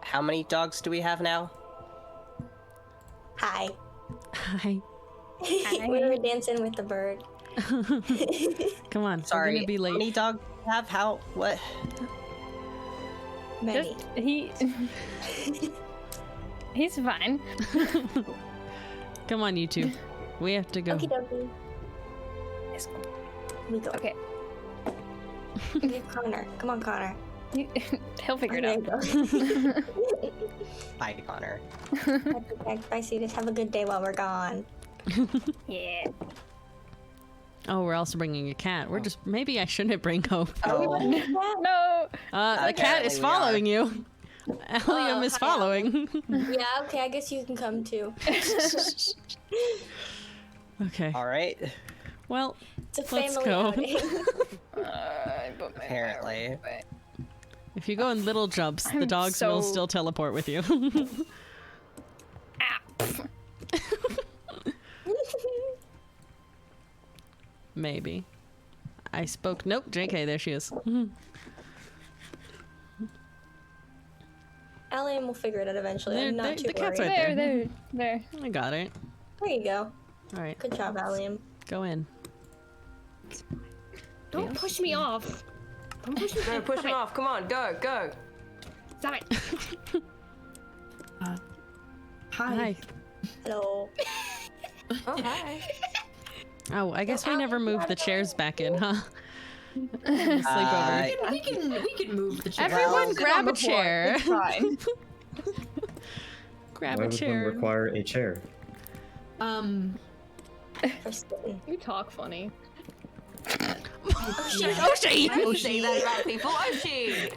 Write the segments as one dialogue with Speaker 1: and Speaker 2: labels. Speaker 1: How many dogs do we have now?
Speaker 2: Hi.
Speaker 3: Hi.
Speaker 2: we were dancing with the bird.
Speaker 3: Come on. We're
Speaker 1: Sorry,
Speaker 3: gonna be
Speaker 1: how many
Speaker 3: late.
Speaker 1: dogs do we have? How? What?
Speaker 2: Many.
Speaker 4: Just he. He's fine.
Speaker 3: Come on, you two. We have to go.
Speaker 2: Okie dokie.
Speaker 4: Let's go.
Speaker 2: We go.
Speaker 4: Okay.
Speaker 2: You're Connor. Come on, Connor.
Speaker 4: You- He'll figure it
Speaker 2: Oh,
Speaker 4: out.
Speaker 2: there you go.
Speaker 1: Bye, Connor.
Speaker 2: Bye, Bye, Sudas. Have a good day while we're gone.
Speaker 4: Yeah.
Speaker 3: Oh, we're also bringing a cat. We're just maybe I shouldn't bring hope.
Speaker 1: Oh,
Speaker 4: No.
Speaker 3: Uh, the cat
Speaker 1: Apparently
Speaker 3: is
Speaker 1: we
Speaker 3: following you. Allium is
Speaker 2: hi,
Speaker 3: following.
Speaker 2: yeah, okay. I guess you can come too.
Speaker 3: okay.
Speaker 1: all right.
Speaker 3: Well,
Speaker 2: It's a
Speaker 3: Let's
Speaker 2: family
Speaker 3: go.
Speaker 2: outing.
Speaker 4: Uh, I put my
Speaker 1: Apparently.
Speaker 3: if you go in little jumps, the
Speaker 4: I'm
Speaker 3: dogs will
Speaker 4: so-
Speaker 3: still teleport with you.
Speaker 4: ah,
Speaker 3: Maybe. I spoke. Nope, JK, there she is.
Speaker 2: Allian will figure it out eventually.
Speaker 3: There-
Speaker 2: I'm
Speaker 3: there-
Speaker 2: not too
Speaker 3: the cat's
Speaker 2: worried.
Speaker 3: right
Speaker 4: There, there, there.
Speaker 3: I got it.
Speaker 2: There you go.
Speaker 3: All right,
Speaker 2: Good job, Allian.
Speaker 3: go in.
Speaker 5: Don't push me off. Don't push me
Speaker 6: No, push him off. Come on, go, go.
Speaker 5: Stop it.
Speaker 3: Hi.
Speaker 2: Hello.
Speaker 6: Oh, hi.
Speaker 3: Oh, I guess we never moved the chairs back in, huh? Sleepover.
Speaker 1: Uh,
Speaker 5: We can we can move the chair.
Speaker 3: Everyone,
Speaker 1: well,
Speaker 3: grab a chair.
Speaker 4: Fine.
Speaker 3: grab
Speaker 7: Why
Speaker 3: a
Speaker 7: would
Speaker 3: chair.
Speaker 7: one require a chair?
Speaker 5: Um,
Speaker 2: For spitting.
Speaker 4: You talk funny.
Speaker 3: oh, shit!
Speaker 6: Oh, she. That about people. Oh, she.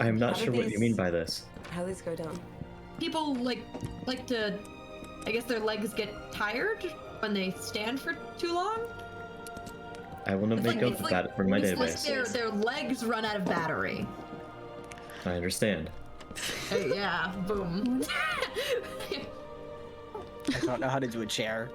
Speaker 7: I am not
Speaker 6: How
Speaker 7: sure what
Speaker 6: these-
Speaker 7: you mean by this.
Speaker 6: How these go down?
Speaker 5: people like like to. I guess their legs get tired when they stand for too long.
Speaker 7: I will not
Speaker 5: It's
Speaker 7: make
Speaker 5: like-
Speaker 7: up
Speaker 5: it's
Speaker 7: for
Speaker 5: like-
Speaker 7: that from my
Speaker 5: it's like
Speaker 7: database.
Speaker 5: their their legs run out of battery.
Speaker 7: I understand.
Speaker 5: Uh, yeah. Boom.
Speaker 1: I don't know how to do a chair.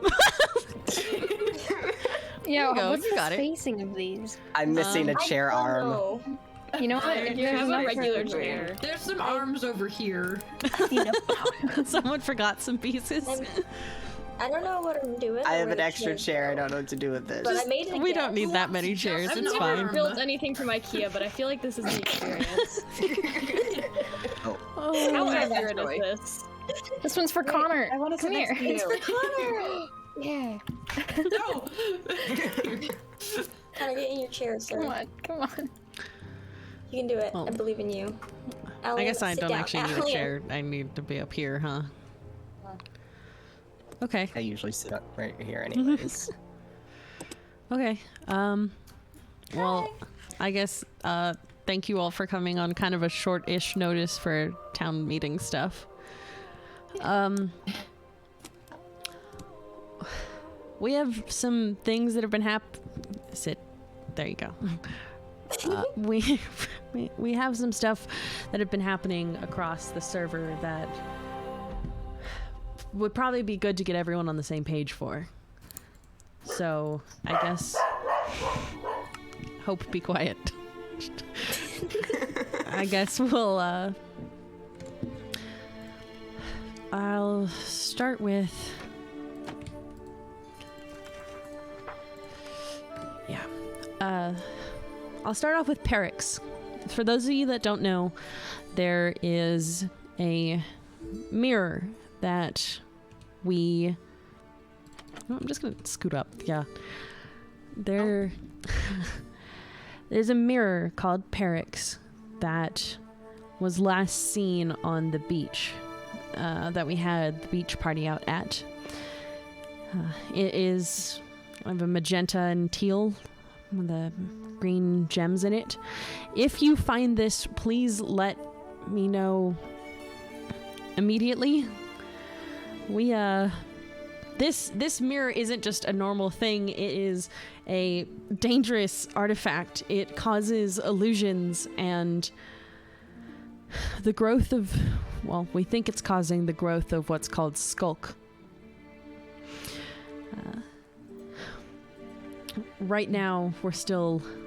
Speaker 4: Yeah.
Speaker 3: you go,
Speaker 4: What's
Speaker 3: you
Speaker 4: the
Speaker 3: got it.
Speaker 4: spacing of these?
Speaker 1: I'm missing
Speaker 2: Um,
Speaker 1: a chair arm.
Speaker 2: Oh,
Speaker 4: You know what?
Speaker 5: There
Speaker 4: If
Speaker 5: you
Speaker 4: there's
Speaker 5: have a
Speaker 4: enough for
Speaker 6: regular
Speaker 4: the
Speaker 6: chair.
Speaker 5: There's some arms over here.
Speaker 3: Someone forgot some pieces.
Speaker 2: I'm- I don't know what I'm doing.
Speaker 1: I
Speaker 2: or
Speaker 1: have
Speaker 2: where
Speaker 1: an
Speaker 2: the
Speaker 1: extra chair. I don't know what to do with this.
Speaker 2: But I made it.
Speaker 3: We
Speaker 2: again.
Speaker 3: don't need that many chairs.
Speaker 5: I've
Speaker 3: It's
Speaker 5: never
Speaker 3: fine.
Speaker 5: built
Speaker 4: built anything from IKEA, but I feel like this is the experience. How
Speaker 3: Oh,
Speaker 4: accurate is this? This one's for Connor. I want to come here. It's for Connor. yeah.
Speaker 5: No.
Speaker 2: Kind of get in your chair, sir.
Speaker 4: Come on. Come on.
Speaker 2: You can do it.
Speaker 3: Oh.
Speaker 2: I believe in you.
Speaker 3: I
Speaker 2: Allian,
Speaker 3: guess I
Speaker 2: sit
Speaker 3: don't
Speaker 2: down.
Speaker 3: actually need a
Speaker 2: Allian,
Speaker 3: chair. I need to be up here, huh? Okay.
Speaker 1: I usually sit up right here, anyways.
Speaker 3: Okay. Um well, I guess uh thank you all for coming on kind of a short-ish notice for town meeting stuff. Um We have some things that have been hap sit. There you go. Uh, we we- we have some stuff that have been happening across the server that would probably be good to get everyone on the same page for. So I guess hope be quiet. I guess we'll uh I'll start with Yeah. Uh I'll start off with Perix. For those of you that don't know, there is a mirror that we Oh, I'm just gonna scoot up. Oh. Yeah. There. There's a mirror called Perix that was last seen on the beach uh, that we had the beach party out at. Uh, it is of a magenta and teal with the green gems in it. If you find this, please let me know immediately. We, uh, this this mirror isn't just a normal thing it is a dangerous artifact it causes illusions and the growth of well we think it's causing the growth of what's called skulk Uh, right now we're still